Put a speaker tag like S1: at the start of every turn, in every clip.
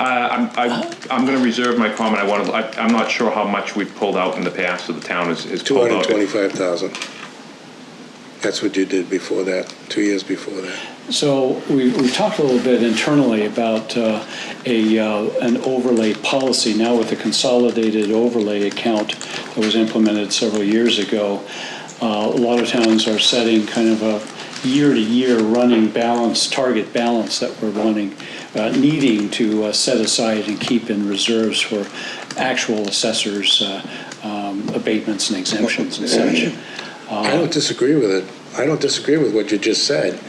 S1: Uh, I'm, I- I'm going to reserve my comment. I want to, I- I'm not sure how much we've pulled out in the past, so the town has has pulled out.
S2: 225,000. That's what you did before that, two years before that.
S3: So we, we talked a little bit internally about uh, a, uh, an overlay policy now with the consolidated overlay account that was implemented several years ago. Uh, A lot of towns are setting kind of a year-to-year running balance, target balance that we're wanting, uh, needing to uh, set aside and keep in reserves for actual assessors, uh, um, abatements and exemptions and such.
S2: I don't disagree with it. I don't disagree with what you just said.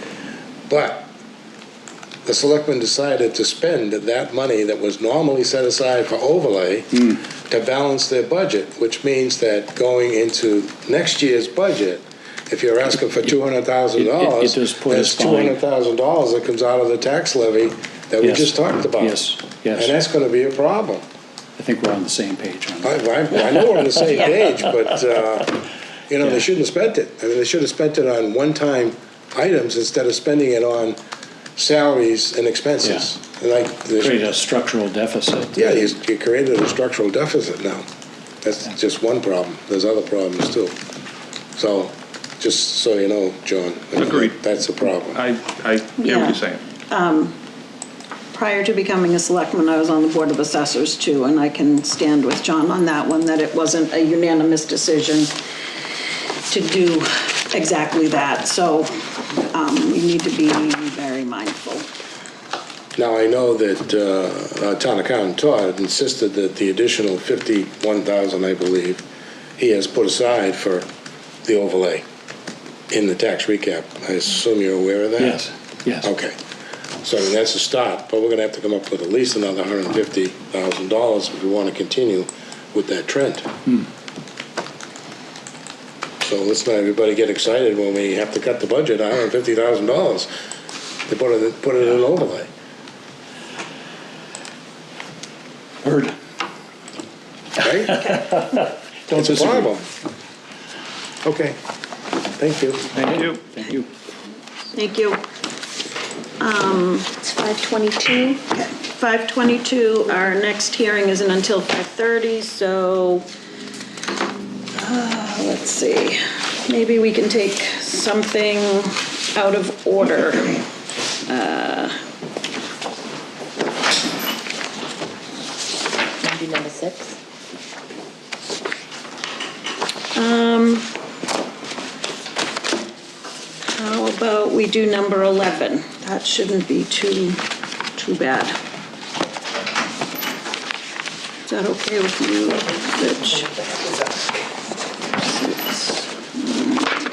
S2: But the selectmen decided to spend that money that was normally set aside for overlay
S3: Hmm.
S2: to balance their budget, which means that going into next year's budget, if you're asking for two hundred thousand
S3: It- it-
S2: dollars,
S3: it does put us
S2: that's two hundred thousand dollars that comes out of the tax levy that we
S3: Yes.
S2: just talked about.
S3: Yes, yes.
S2: And that's gonna be a problem.
S3: I think we're on the same page on
S2: I,
S3: that.
S2: I, I know we're on the same page, but, uh, you know, they shouldn't have spent it. I mean, they should have spent it on one-time items instead of spending it on salaries and expenses. And Like, they should-
S3: Create a structural deficit.
S2: yeah, you, you created a structural deficit now. That's just one problem. There's other problems too. So, just so you know, John. I mean,
S1: Agreed.
S2: That's a problem.
S1: I, I hear what
S4: Yeah.
S1: you're saying.
S4: Prior to becoming a selectman, I was on the Board of Assessors too, and I can stand with John on that one, that it wasn't a unanimous decision to do exactly that. So um, we need to be very mindful.
S2: Now, I know that, uh, our town accountant Todd insisted that the additional fifty-one thousand, I believe, he has put aside for the overlay in the tax recap. I assume you're aware of that?
S3: Yes, yes.
S2: Okay. So I mean, that's a start, but we're gonna have to come up with at least another hundred and fifty thousand dollars if we wanna continue with that trend. So let's not everybody get excited when we have to cut the budget, hundred and fifty thousand dollars to put it, put it in overlay.
S3: Heard.
S2: right?
S3: Don't
S2: It's a
S3: disagree.
S2: problem. Okay, thank you.
S1: Thank you.
S3: Thank you.
S4: Thank you. Um,
S5: It's 522.
S4: 5:22, our next hearing isn't until 5:30, so, uh, let's see, maybe we can take something out of order.
S5: Maybe number six.
S4: How about we do number 11? That shouldn't be too, too bad. Is that okay with you, Rich? Six.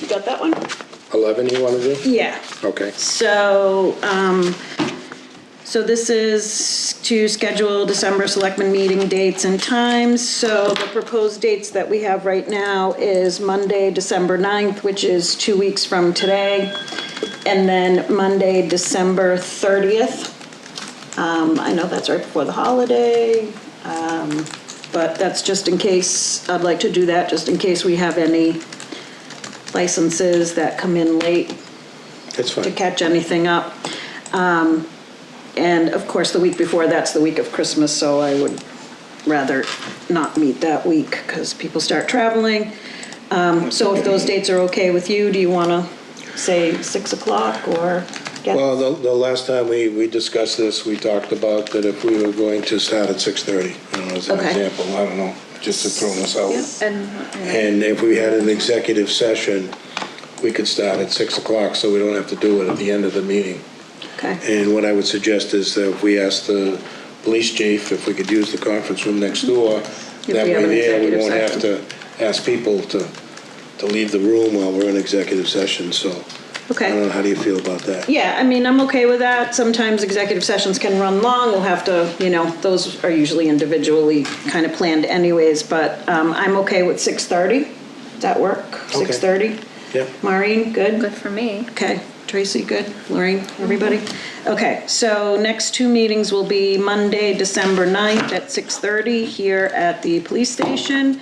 S4: You got that one?
S2: Eleven you wanna do?
S4: Yeah.
S2: Okay.
S4: So, um, so this is to schedule December selectmen meeting dates and times. So the proposed dates that we have right now is Monday, December 9th, which is two weeks from today, and then Monday, December 30th. Um, I know that's right before the holiday, um, but that's just in case, I'd like to do that, just in case we have any licenses that come in late
S2: That's
S4: to
S2: fine.
S4: catch anything up. Um, And of course, the week before, that's the week of Christmas, so I would rather not meet that week because people start traveling. Um, So if those dates are okay with you, do you want to say 6 o'clock or? get-
S2: Well, the, the last time we, we discussed this, we talked about that if we were going to start at six thirty, I don't know, as an
S4: Okay.
S2: example, I don't know, just to throw this out.
S4: Yeah.
S5: And
S2: And if we had an executive session, we could start at six o'clock, so we don't have to do it at the end of the meeting.
S4: Okay,
S2: And what I would suggest is that if we ask the police chief if we could use the conference room next door.
S4: we
S2: That
S4: have an
S2: way there, we
S4: executive
S2: won't have to
S4: session.
S2: ask people to, to leave the room while we're in executive session, so. I
S4: okay.
S2: don't know, how do you feel about that?
S4: Yeah, I mean, I'm okay with that. Sometimes executive sessions can run long. We'll have to, you know, those are usually individually kind of planned anyways, but um, I'm okay with 6:30. Does that work? 6:30?
S2: Yeah.
S4: Maureen,
S5: good for me. Mm-hmm.
S4: Okay, Tracy, good, Lorraine, everybody? Okay, so next two meetings will be Monday, December 9th at 6:30 here at the police station,